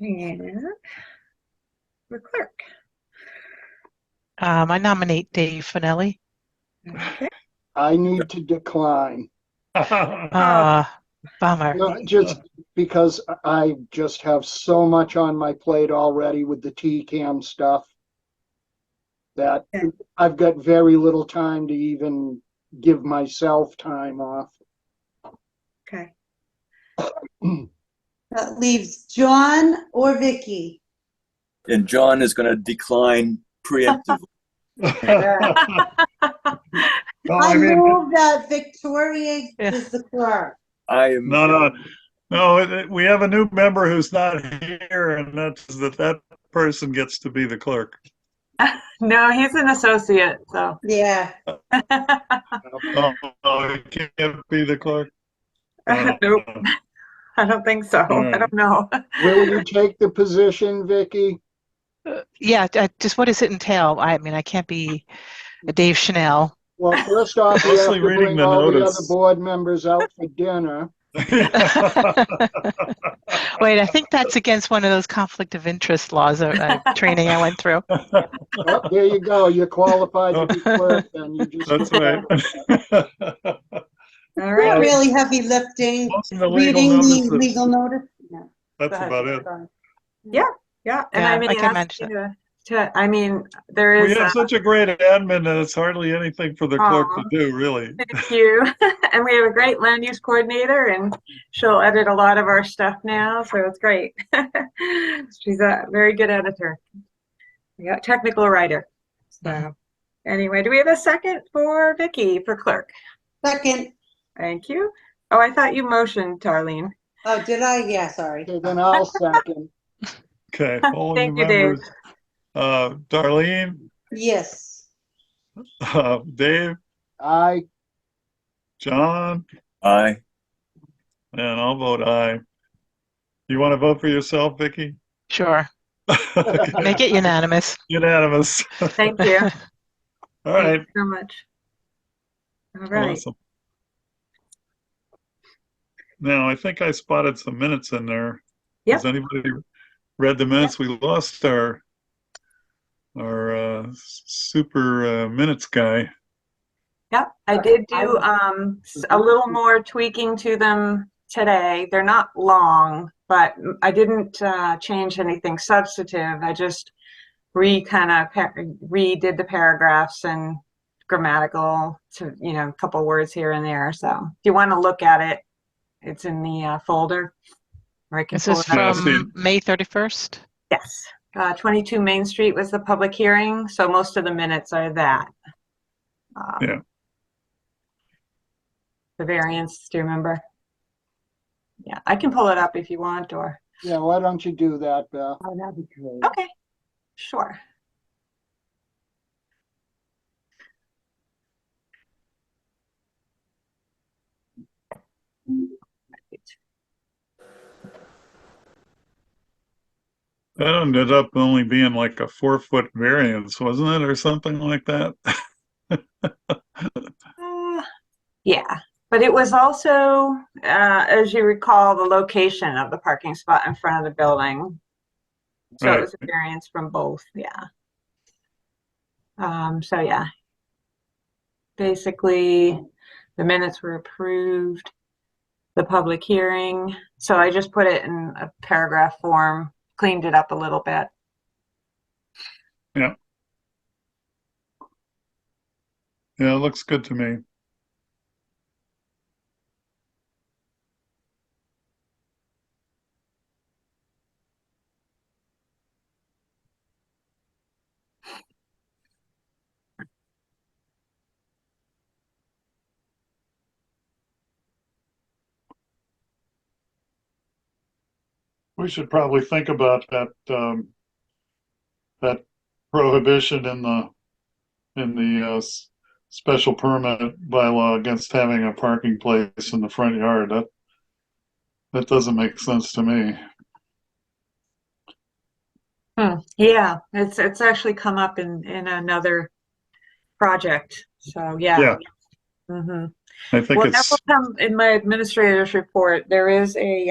And we're clerk. Um, I nominate Dave Finelli. Okay. I need to decline, Oh. Uh, bummer. not just because I just have so much on my plate already with the TCAM stuff that I've got very little time to even give myself time off. Okay. That leaves John or Vicky. And John is going to decline preemptively. Well, Oh, I I mean, move that Victoria Yeah. is the clerk. I am. no, no, no, it- it- we have a new member who's not here and that's, that that person gets to be the clerk. No, he's an associate, so. Yeah, Oh, oh, he can't be the clerk. Uh, Nope, I don't think so. I Alright. don't know. Will you take the position, Vicky? Yeah, I- just what does it entail? I mean, I can't be a Dave Chanel. Well, first off, you have Mostly to reading bring the all the other notice. board members out for dinner. Wait, I think that's against one of those conflict of interest laws or uh, training I went through. Oh, There you go, you're qualified to be clerk, and you just. That's right. All Yeah. right. really heavy lifting, Posting the legal reading the notices. legal notice. No, That's go ahead. about it. Yeah, and I Yeah, mean, I he can asked manage you to, to- I mean, there We is, have uh, such a great admin that it's hardly anything for the clerk to Aw. do, really. thank you. And we have a great land use coordinator and she'll edit a lot of our stuff now, so it's great. She's a very good editor. We got technical writer. So, anyway, do we have a second for Vicky for clerk? Second, Thank you. Oh, I thought you motioned, Darlene. oh, did I? Yeah, sorry. Okay, Then I'll second. Okay, all the Thank you, Dave. members. Uh, Darlene, Yes. uh, Dave, I, John, I. and I'll vote aye. You want to vote for yourself, Vicky? Sure. Okay, Make it unanimous. Unanimous. Thank you. All right. Thank you so much. All right. awesome. Now, I think I spotted some minutes in there. Has anybody read the minutes? We lost our, our, uh, super, uh, minutes guy. Yep, I Okay, did I do will- Mm-hmm. um, s- a little more tweaking to them today. They're not long, but m- I didn't uh, change anything substantive. I just re kind of redid the paragraphs and grammatical to, you know, a couple words here and there. So if you want to look at it, it's in the uh, folder. Or I can This pull is it up. I've seen from May 31st. Yes, Uh, 22 Main Street was the public hearing, so most of the minutes are that. Um, Yeah. The variance, do you remember? Yeah, I can pull it up if you want, or, yeah, why don't you do that, Beth? Oh, that'd be great. okay, sure. That ended up only being like a four foot variance, wasn't it? Or something like that? Uh, Yeah, but it was also, uh, as you recall, the location of the parking spot in front of the building. So Right. it was a variance from both, yeah. Um, so yeah. Basically, the minutes were approved, the public hearing, so I just put it in a paragraph form, cleaned it up a little bit. Yeah, it looks good to me. We should probably think about that, um, that prohibition in the, in the, uh, s- special permit bylaw against having a parking place in the front yard. That that doesn't make sense to me. Hmm, yeah, it's it's actually come up in in another project. So yeah. Yeah. hmm I think Well, that it's will come in my administrator's report. There is a